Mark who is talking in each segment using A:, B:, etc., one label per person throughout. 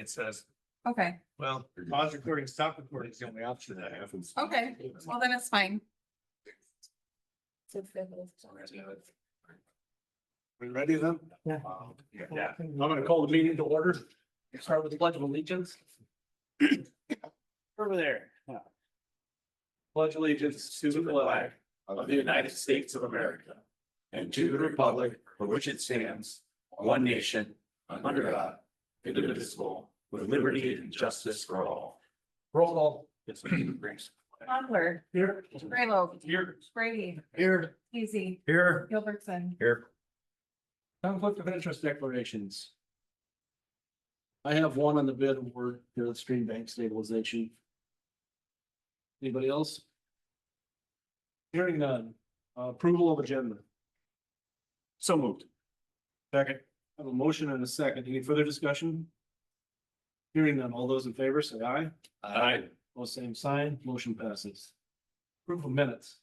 A: it says,
B: Okay,
A: well, pause recording, stop recording is the only option that happens.
B: okay, well, then it's fine.
A: We ready then?
C: Yeah.
A: Um, Yeah.
C: I'm gonna call the meeting to order. Start with the pledge of allegiance. Over there. Yeah. Pledge allegiance to the flag of the United States of America and to the republic for which it stands, one nation, under God, indivisible, with liberty and justice for all. Roll call. Yes.
B: Butler,
C: Here.
B: Graylow,
C: Here.
B: Brady,
C: Here.
B: Easy,
C: Here.
B: Gilbertson.
C: Here. Conflict of interest declarations. I have one on the bid award for the stream bank stabilization. Anybody else? Hearing none, Uh, approval of agenda. So moved. Second. I have a motion and a second. Any further discussion? Hearing none, all those in favor say aye. Aye. All same sign, motion passes. Approval of minutes.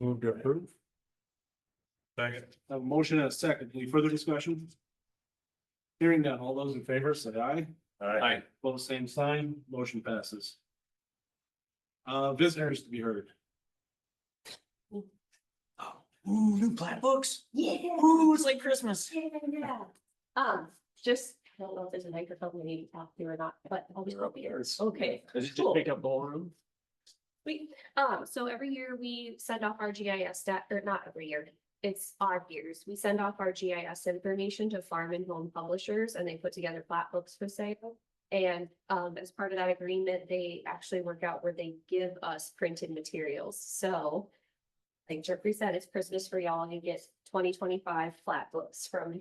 C: Move to approve.
A: Second.
C: I have a motion and a second. Any further discussion? Hearing none. All those in favor say aye.
A: Aye.
C: Both same sign. Motion passes. Uh, visitors to be heard.
D: Ooh, new plat books. Yeah. Ooh, it's like Christmas.
E: Yeah. Um, just, I don't know if there's a microphone we need to talk to or not, but I'll be over here. Okay,
C: Does it just
E: Cool.
C: pick up the whole room?
E: we, um, so every year we send off our GIS data, or not every year. It's odd years. We send off our GIS information to farm and home publishers and they put together plat books for sale. And, um, as part of that agreement, they actually work out where they give us printed materials. So like Jeffrey said, it's Christmas for y'all. You get twenty twenty-five flat books from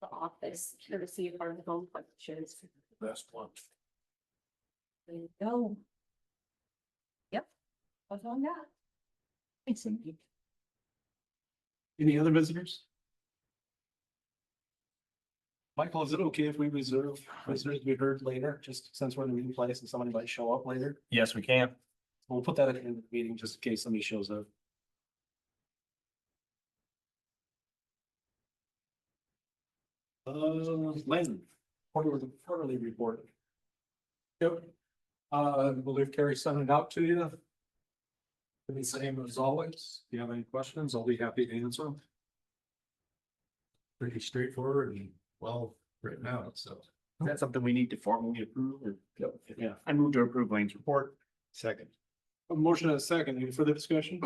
E: the office, courtesy of our home publishers.
A: Best one.
E: There you go. Yep. What's on that? It's in.
C: Any other visitors? Michael, is it okay if we reserve visitors to be heard later, just since we're in the meeting place and somebody might show up later?
A: Yes, we can.
C: We'll put that at the end of the meeting just in case somebody shows up. Uh, Lynn, quarterly, quarterly report.
F: Yep. Uh, I believe Carrie sent it out to you. The same as always. If you have any questions, I'll be happy to answer them. Pretty straightforward and well written out, so.
A: Is that something we need to formally approve or?
C: Yeah,
A: I move to approve Lane's report. Second.
C: a motion and a second. Any further discussion?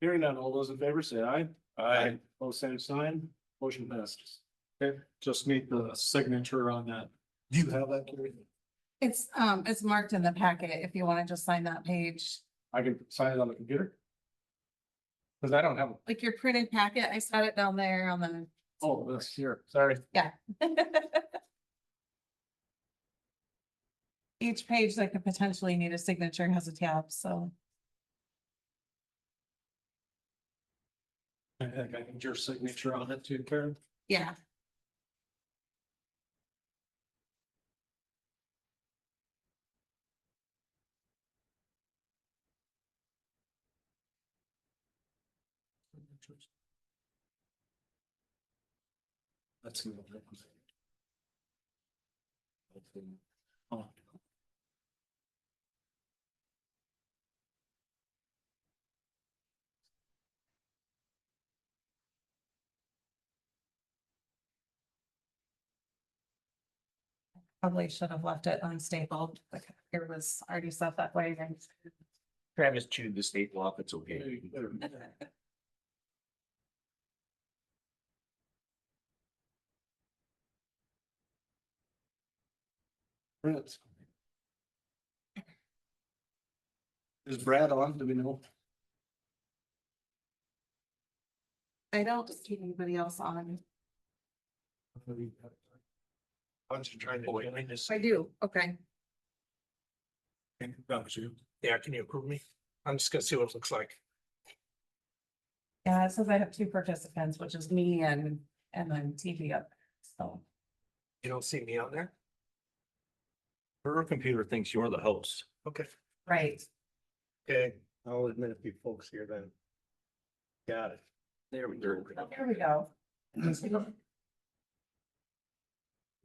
C: Hearing none. All those in favor say aye.
A: Aye.
C: Oh, same sign. Motion passes.
F: Okay, just need the signature on that. Do you have that, Carrie?
B: It's, um, it's marked in the packet if you want to just sign that page.
C: I can sign it on the computer. Cause I don't have, a-
B: Like your printed packet, I set it down there on the,
C: oh, that's here. Sorry.
B: each page that could potentially need a signature has a tab, so.
F: I think I need your signature on it too, Karen.
B: Yeah.
F: That's. the one. Oh.
B: Probably should have left it unstapled, like it was already set that way. and-
A: Travis chewed the state law, it's okay.
C: Brett. Is Brad on? Do we know?
B: I don't see anybody else on.
A: Bunch of trying to. join this.
B: I do, okay.
G: Yeah, can you approve me? I'm just gonna see what it looks like.
B: Yeah, it says I have two participants, which is me and, and then TV up, so.
G: You don't see me on there?
A: Her computer thinks you're the host.
G: Okay.
B: Right.
G: Okay, I'll admit a few folks here then. Got it.
A: There we go.
B: There we oh, go.